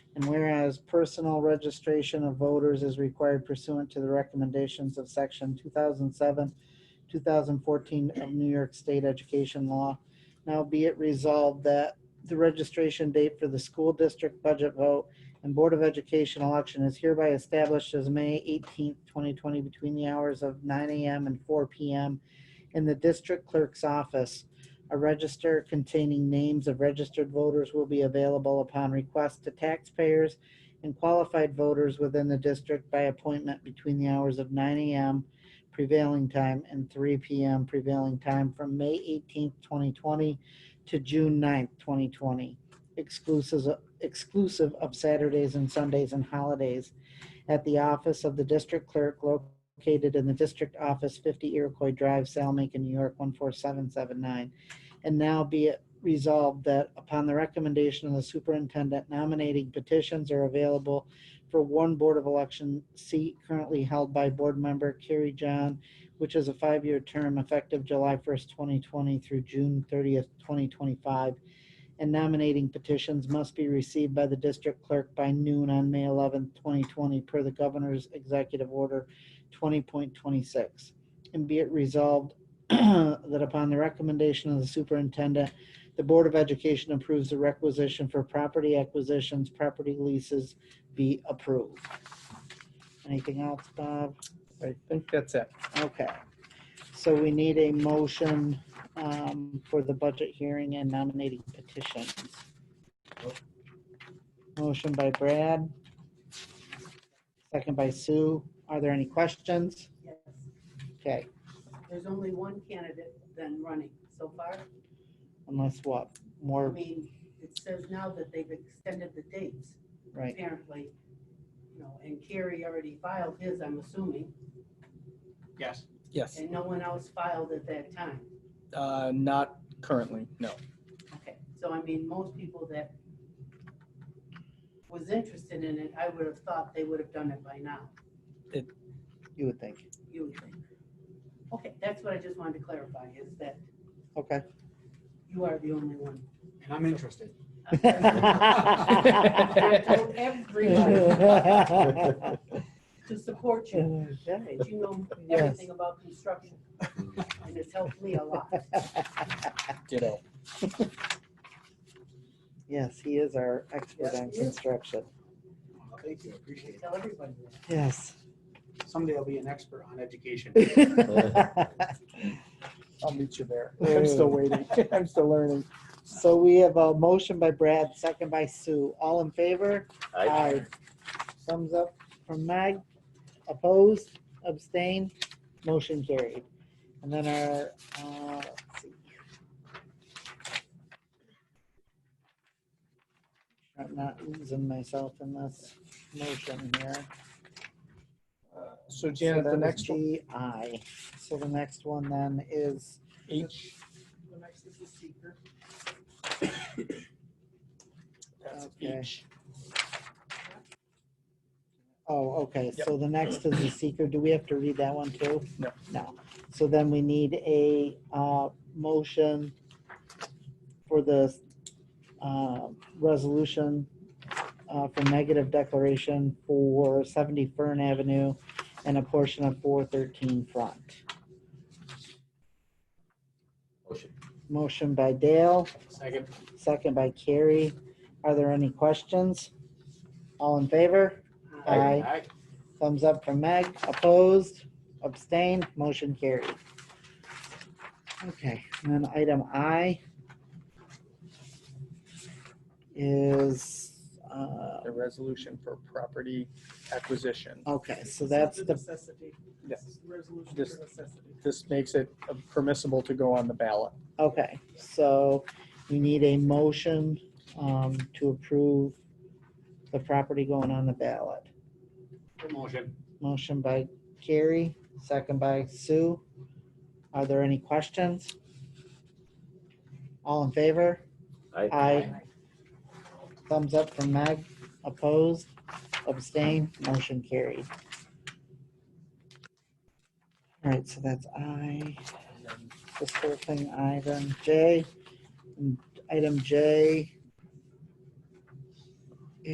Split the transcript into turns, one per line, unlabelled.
And whereas personal registration of voters is required pursuant to the recommendations of section two thousand seven, two thousand fourteen of New York State Education Law. Now be it resolved that the registration date for the school district budget vote and Board of Education election is hereby established as May eighteenth, twenty twenty, between the hours of nine AM and four PM in the district clerk's office. A register containing names of registered voters will be available upon request to taxpayers and qualified voters within the district by appointment between the hours of 9 AM prevailing time and 3 PM prevailing time from May 18th, 2020 to June 9th, 2020, exclusive, exclusive of Saturdays and Sundays and holidays at the office of the district clerk located in the district office, 50 Iroquois Drive, Salmaker, New York, 14779. And now be it resolved that upon the recommendation of the superintendent, nominating petitions are available for one Board of Election seat currently held by Board Member Carrie John, which is a five-year term effective July 1st, 2020 through June 30th, 2025. And nominating petitions must be received by the district clerk by noon on May 11th, 2020, per the governor's executive order 20.26. And be it resolved that upon the recommendation of the superintendent, the Board of Education approves the requisition for property acquisitions, property leases be approved. Anything else, Bob?
I think that's it.
Okay. So we need a motion um, for the budget hearing and nominating petitions. Motion by Brad. Second by Sue. Are there any questions?
Yes,
Okay,
there's only one candidate then running so far.
unless what?
I
More,
mean, it says now that they've extended the dates,
right?
apparently, you know, and Carrie already filed his, I'm assuming,
Yes,
Yes,
and no one else filed at that time.
uh, not currently, no.
Okay, so I mean, most people that was interested in it, I would have thought they would have done it by now,
You would think.
you would think. Okay, that's what I just wanted to clarify, is that
Okay.
you are the only one.
and I'm interested.
I told everybody to support you.
Okay.
that you know
Yes.
everything about construction. And it's helped me a lot.
Ditto.
Yes, he is our expert
Yes,
on
he is.
construction.
Well, Thank you, I appreciate it.
Tell everybody that.
Yes.
Someday I'll be an expert on education.
I'll meet you there. I'm still waiting. I'm still learning.
So we have a motion by Brad, second by Sue. All in favor? Aye. Thumbs up from Meg. Opposed, abstained, motion carried. And then our, uh, let's see. I'm not losing myself in this motion here.
So
So
Janet, the
that was
next one,
GI. So the next one then is,
H,
The next is the seeker.
that's
Okay.
H.
oh, okay, so the next is the seeker. Do we have to read that one too?
No.
No. So then we need a uh, motion for the uh, resolution uh, for negative declaration for 70 Fern Avenue and a portion of 413 Front.
Motion.
Motion by Dale.
Second,
Second by Carrie. Are there any questions? All in favor? Aye.
aye,
Thumbs up from Meg. Opposed? Abstained? Motion carried. Okay, and then item I is, uh,
The resolution for property acquisition.
okay, so that's the,
Necessity.
Yes.
Resolution
Just-
necessity.
This makes it permissible to go on the ballot.
okay, so we need a motion um, to approve the property going on the ballot.
motion.
Motion by Carrie, second by Sue. Are there any questions? All in favor?
Aye.
Aye. Thumbs up from Meg. Opposed? Abstained? Motion carried. All right, so that's I. This whole thing, I, then J. And Item J